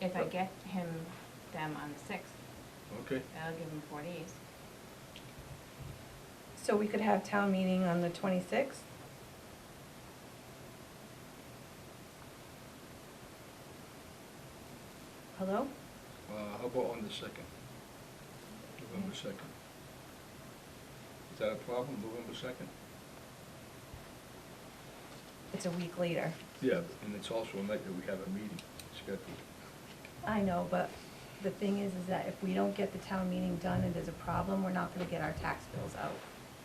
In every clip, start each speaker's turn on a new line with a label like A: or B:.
A: If I get him them on the sixth,
B: Okay,
A: that'll give him four days.
C: So we could have town meeting on the twenty-sixth? Hello?
B: uh, how about on the second? November second? Is that a problem, November second?
C: It's a week later.
B: Yeah, and it's also a night that we have a meeting scheduled.
C: I know, but the thing is, is that if we don't get the town meeting done and there's a problem, we're not gonna get our tax bills out.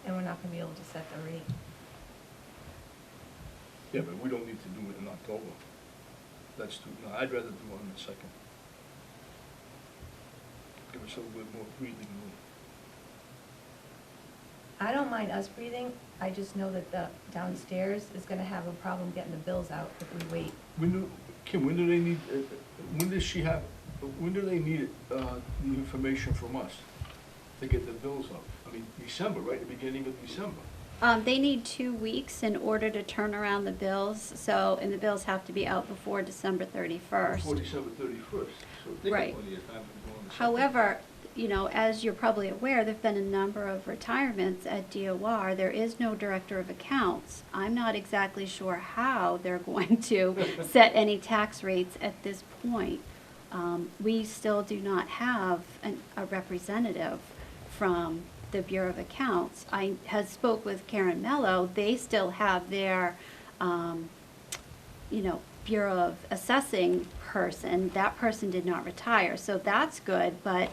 C: And we're not gonna be able to set the rate.
B: Yeah, but we don't need to do it in October. That's too, no, I'd rather do it on the second. Give us a little bit more breathing room.
C: I don't mind us breathing, I just know that the downstairs is gonna have a problem getting the bills out if we wait.
B: When do, Kim, when do they need, uh, when does she have, when do they need uh, the information from us to get the bills up? I mean, December, right, the beginning of December.
D: Um, they need two weeks in order to turn around the bills, so, and the bills have to be out before December
B: Before
D: thirty-first.
B: December thirty-first, so they got
D: Right.
B: plenty of time to go on the second.
D: However, you know, as you're probably aware, there've been a number of retirements at DOR. There is no director of accounts. I'm not exactly sure how they're going to set any tax rates at this point. Um, we still do not have an, a representative from the Bureau of Accounts. I had spoke with Karen Mello. They still have their, um, you know, Bureau of Assessing person, that person did not retire, so that's good, but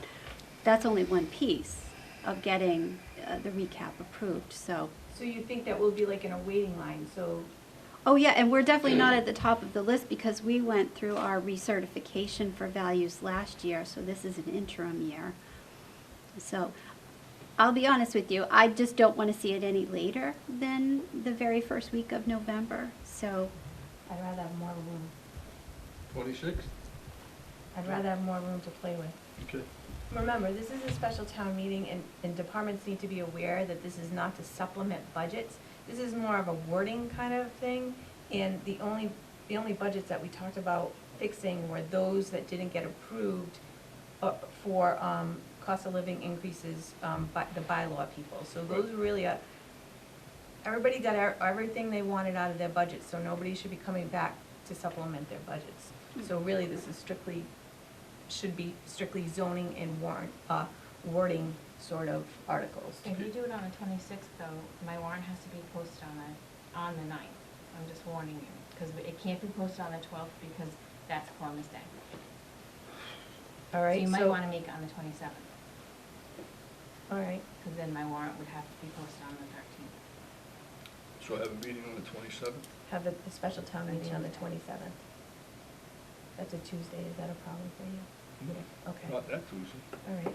D: that's only one piece of getting uh, the recap approved, so.
C: So you think that we'll be like in a waiting line, so
D: Oh, yeah, and we're definitely not at the top of the list because we went through our recertification for values last year, so this is an interim year. So, I'll be honest with you, I just don't want to see it any later than the very first week of November, so,
C: I'd rather have more room.
B: Twenty-sixth,
C: I'd rather have more room to play with.
B: okay.
C: Remember, this is a special town meeting, and, and departments need to be aware that this is not to supplement budgets. This is more of a wording kind of thing, and the only, the only budgets that we talked about fixing were those that didn't get approved uh, for, um, cost of living increases, um, by, the bylaw people. So those are really a, everybody got our- everything they wanted out of their budget, so nobody should be coming back to supplement their budgets. So really, this is strictly, should be strictly zoning and warrant, uh, wording sort of articles.
A: If you do it on the twenty-sixth though, my warrant has to be posted on the, on the ninth. I'm just warning you, because it can't be posted on the twelfth because that's Columbus Day.
C: All
A: So
C: right,
A: you might
C: so-
A: wanna make it on the twenty-seventh,
C: All right,
A: because then my warrant would have to be posted on the thirteenth.
B: So have a meeting on the twenty-seventh?
C: have a, a special town meeting on the twenty-seventh. That's a Tuesday, is that a problem for you?
B: Mm-hmm.
C: Okay.
B: Not that Tuesday.
C: All right.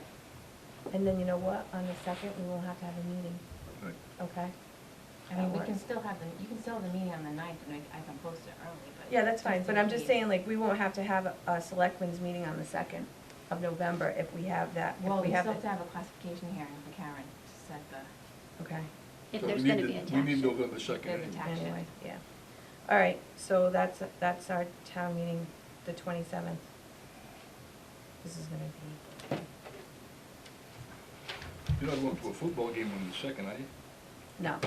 C: And then you know what, on the second, we will have to have a meeting,
B: Right.
C: okay?
A: I mean,
C: That
A: we can
C: works.
A: still have the, you can still have the meeting on the ninth, and I, I can post it early, but.
C: Yeah, that's fine,
A: Tuesday
C: but I'm just
A: meeting.
C: saying, like, we won't have to have a, a selectmen's meeting on the second of November if we have that, if
A: Well, we
C: we
A: still
C: have
A: have to
C: it.
A: have a classification hearing for Karen to set the,
C: Okay,
D: if
B: So we
D: there's
B: need
D: going to
B: the-
D: be a tax.
B: We need
D: shift.
B: November second. eh?
A: there's a tax shift.
C: anyway, yeah. All right, so that's, that's our town meeting, the twenty-seventh. This is gonna be,
B: You're not going to a football game on the second, are you?
C: no,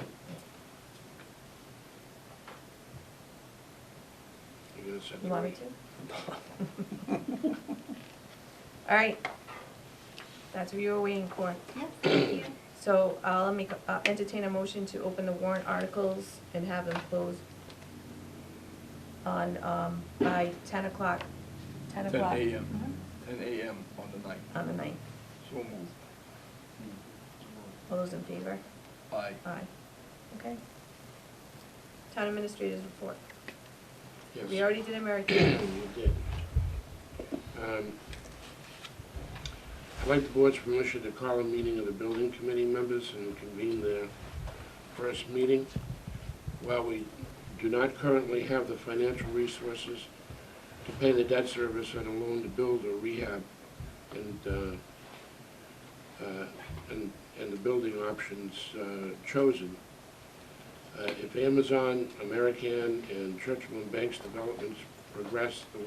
B: You're gonna send
C: you
B: it
C: want me
B: right.
C: to? All right, that's what you were waiting for.
D: Yes, thank you.
C: So I'll make, uh, entertain a motion to open the warrant articles and have them closed on, um, by ten o'clock, ten
B: Ten
C: o'clock Mm-hmm.
B: AM, ten AM on the night.
C: on the ninth.
B: So moved.
C: All those in favor?
B: Aye.
C: Aye. Okay. Town administrators report.
E: Yes.
C: We already did American.
E: You did. Um, I'd like the board's permission to call a meeting of the building committee members and convene their first meeting. While we do not currently have the financial resources to pay the debt service on a loan to build or rehab and, uh, uh, and, and the building options uh, chosen, uh, If Amazon, American, and Churchill and Banks developments progress the way